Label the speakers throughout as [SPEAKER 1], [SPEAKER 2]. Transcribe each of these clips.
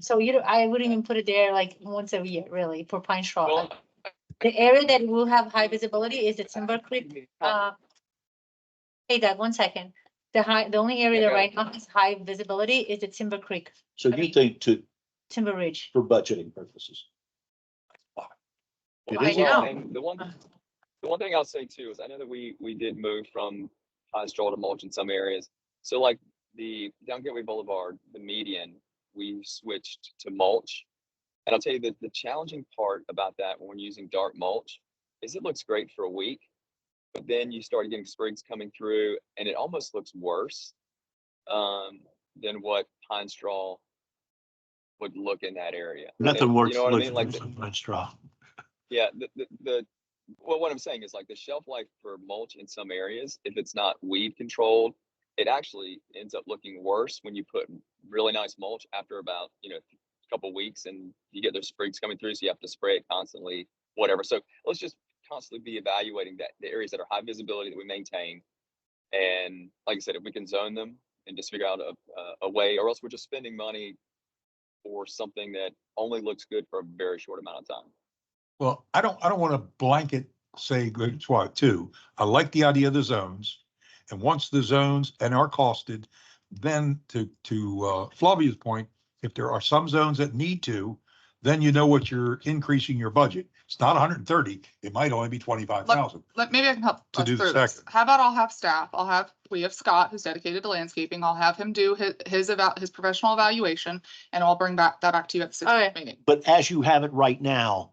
[SPEAKER 1] So you, don't- I wouldn't even put it there like once a year, really, for pine straw.
[SPEAKER 2] Well,
[SPEAKER 1] Like, The area that will have high visibility is the Timber Creek, uh. Hey Doug, one second. The high, the only area that
[SPEAKER 2] Yeah.
[SPEAKER 1] right now has high visibility is the Timber Creek,
[SPEAKER 3] So you think to,
[SPEAKER 1] Timber Ridge.
[SPEAKER 3] for budgeting purposes?
[SPEAKER 1] Well,
[SPEAKER 3] It
[SPEAKER 1] I
[SPEAKER 3] is.
[SPEAKER 2] The one
[SPEAKER 1] know.
[SPEAKER 2] thing- The one, the one thing I'll say too is I know that we, we did move from pine straw to mulch in some areas. So like the down Gateway Boulevard, the median, we switched to mulch. And I'll tell you that the challenging part about that when we're using dark mulch is it looks great for a week. But then you start getting sprigs coming through and it almost looks worse um, than what pine straw would look in that area. And-
[SPEAKER 3] Nothing
[SPEAKER 2] you
[SPEAKER 3] works,
[SPEAKER 2] know what I
[SPEAKER 3] looks
[SPEAKER 2] mean? Like
[SPEAKER 3] worse
[SPEAKER 2] the-
[SPEAKER 3] than pine straw.
[SPEAKER 2] yeah, the, the, the, well, what I'm saying is like the shelf life for mulch in some areas, if it's not weed controlled, it actually ends up looking worse when you put really nice mulch after about, you know, a couple weeks and you get those sprigs coming through, so you have to spray it constantly, whatever. So let's just constantly be evaluating that, the areas that are high visibility that we maintain. And like I said, if we can zone them and just figure out a, a- a way, or else we're just spending money for something that only looks good for a very short amount of time.
[SPEAKER 4] Well, I don't, I don't want to blanket say great SWAT too. I like the idea of the zones. And once the zones and are costed, then to, to uh, Flavia's point, if there are some zones that need to, then you know what you're increasing your budget. It's not hundred and thirty, it might only be twenty-five thousand.
[SPEAKER 5] Let, maybe I can help.
[SPEAKER 4] To
[SPEAKER 5] us
[SPEAKER 4] do the
[SPEAKER 5] through this.
[SPEAKER 4] second.
[SPEAKER 5] How about I'll have staff, I'll have, we have Scott who's dedicated to landscaping, I'll have him do his, his about, his professional evaluation. And I'll bring back, that back to you at the sixth
[SPEAKER 1] Alright.
[SPEAKER 5] meeting.
[SPEAKER 3] But as you have it right now,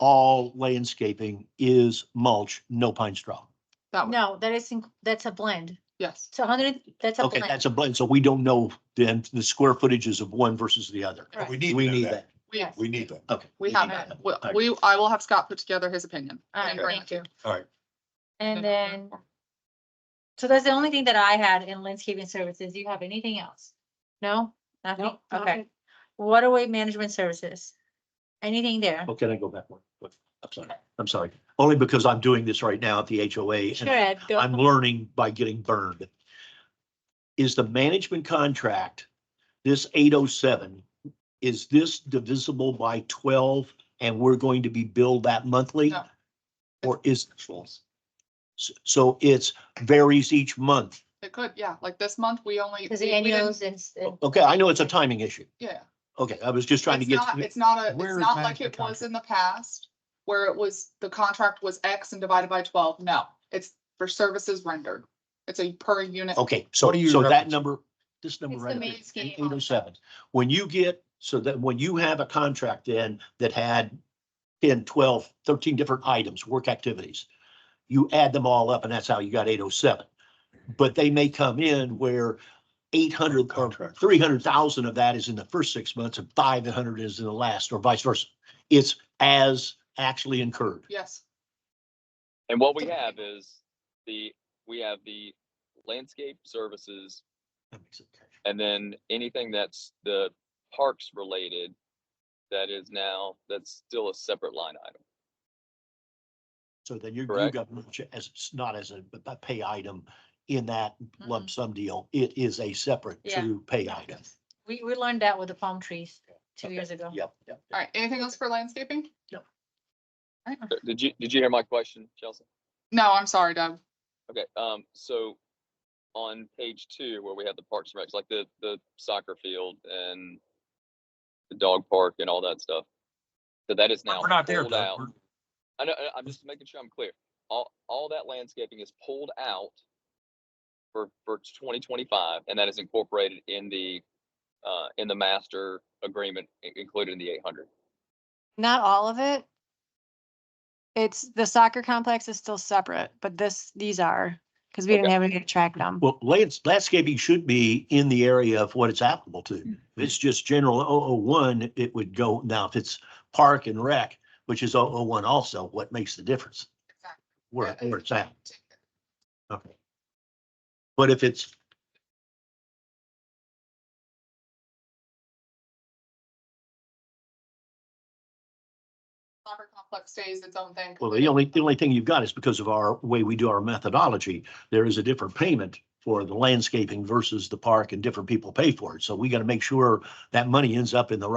[SPEAKER 3] all landscaping is mulch, no pine straw.
[SPEAKER 5] That, one.
[SPEAKER 1] No, that is, inc- that's a blend.
[SPEAKER 5] yes.
[SPEAKER 1] So hundred, that's a
[SPEAKER 3] Okay,
[SPEAKER 1] blend.
[SPEAKER 3] that's a blend. So we don't know then the square footages of one versus the other.
[SPEAKER 1] Correct.
[SPEAKER 4] We
[SPEAKER 3] We
[SPEAKER 4] need to know
[SPEAKER 3] need
[SPEAKER 4] that.
[SPEAKER 3] that.
[SPEAKER 5] We,
[SPEAKER 4] We need that.
[SPEAKER 3] Okay.
[SPEAKER 5] we
[SPEAKER 3] need
[SPEAKER 5] have
[SPEAKER 3] that.
[SPEAKER 5] it.
[SPEAKER 3] Okay.
[SPEAKER 5] We- We, I will have Scott put together his opinion.
[SPEAKER 1] Alright,
[SPEAKER 5] and bring
[SPEAKER 1] thank
[SPEAKER 5] it to
[SPEAKER 1] you.
[SPEAKER 4] All right.
[SPEAKER 1] And then, so that's the only thing that I had in landscaping services. Do you have anything else? No? Nothing? Okay. Waterway management services. Anything there?
[SPEAKER 3] Well, Oh, can I go back one? quick? I'm sorry. I'm sorry. Only because I'm doing this right now at the HOA.
[SPEAKER 1] Sure,
[SPEAKER 3] and
[SPEAKER 1] Ed, go.
[SPEAKER 3] I'm learning by getting burned. Is the management contract, this eight oh seven, is this divisible by twelve and we're going to be billed that monthly?
[SPEAKER 5] No.
[SPEAKER 3] Or is, s- so it's varies each month?
[SPEAKER 5] It could, yeah, like this month, we only.
[SPEAKER 1] Because
[SPEAKER 5] we-
[SPEAKER 1] the
[SPEAKER 5] we didn't- Oh,
[SPEAKER 1] annuals and, s- and-
[SPEAKER 3] Okay, I know it's a timing issue.
[SPEAKER 5] Yeah.
[SPEAKER 3] Okay, I was just trying to
[SPEAKER 5] It's
[SPEAKER 3] get.
[SPEAKER 5] not- It's not a,
[SPEAKER 4] Where
[SPEAKER 5] it's
[SPEAKER 4] is
[SPEAKER 5] not like
[SPEAKER 4] management
[SPEAKER 5] it was in the past where it was, the contract was X and divided by twelve. No, it's for services rendered. It's a per unit.
[SPEAKER 3] Okay, so,
[SPEAKER 4] What are you
[SPEAKER 3] so that
[SPEAKER 4] referencing?
[SPEAKER 3] number, this number
[SPEAKER 1] It's the
[SPEAKER 3] right
[SPEAKER 1] main
[SPEAKER 3] here,
[SPEAKER 1] scheme.
[SPEAKER 3] eight oh seven. When you get, so that when you have a contract in that had 10, 12, 13 different items, work activities, you add them all up and that's how you got eight oh seven. But they may come in where eight hundred or
[SPEAKER 4] Contract.
[SPEAKER 3] three hundred thousand of that is in the first six months and five hundred is in the last or vice versa. It's as actually incurred.
[SPEAKER 5] Yes,
[SPEAKER 2] And what we have is the, we have the landscape services
[SPEAKER 3] That makes it cash.
[SPEAKER 2] and then anything that's the parks related that is now, that's still a separate line item.
[SPEAKER 3] So then you, you
[SPEAKER 2] Correct.
[SPEAKER 3] got much as, it's not as a, a pay item in that
[SPEAKER 5] Mm-hmm.
[SPEAKER 3] lump sum deal. It is a separate
[SPEAKER 1] Yeah.
[SPEAKER 3] to pay item.
[SPEAKER 1] we, we learned that with the palm trees two
[SPEAKER 3] Okay,
[SPEAKER 1] years ago.
[SPEAKER 3] Yep, yep.
[SPEAKER 5] all right. Anything else for landscaping?
[SPEAKER 2] Uh, Did you, did you hear my question, Chelsea?
[SPEAKER 5] No, I'm sorry, Doug.
[SPEAKER 2] Okay, um, so on page two where we have the parks and recs, like the, the soccer field and the dog park and all that stuff. So that is now
[SPEAKER 4] We're not there,
[SPEAKER 2] pulled
[SPEAKER 4] Doug.
[SPEAKER 2] out.
[SPEAKER 4] We're-
[SPEAKER 2] I know, I- I'm just making sure I'm clear. All, all that landscaping is pulled out for, for twenty twenty-five, and that is incorporated in the, uh, in the master agreement i- included in the eight hundred.
[SPEAKER 6] Not all of it. It's, the soccer complex is still separate, but this, these are, because we didn't
[SPEAKER 2] Okay.
[SPEAKER 6] have any to track them.
[SPEAKER 3] Well, lands, landscaping should be in the area of what it's applicable to.
[SPEAKER 5] Mm-hmm.
[SPEAKER 3] If it's just general 001, it would go, now if it's park and rec, which is 001 also, what makes the difference?
[SPEAKER 5] Exactly.
[SPEAKER 3] Where,
[SPEAKER 5] Yeah,
[SPEAKER 3] where it's at, okay. But if it's
[SPEAKER 5] Soccer complex stays its own thing.
[SPEAKER 3] Well, the only, the only thing you've got is because of our way we do our methodology, there is a different payment for the landscaping versus the park and different people pay for it. So we got to make sure that money ends up in the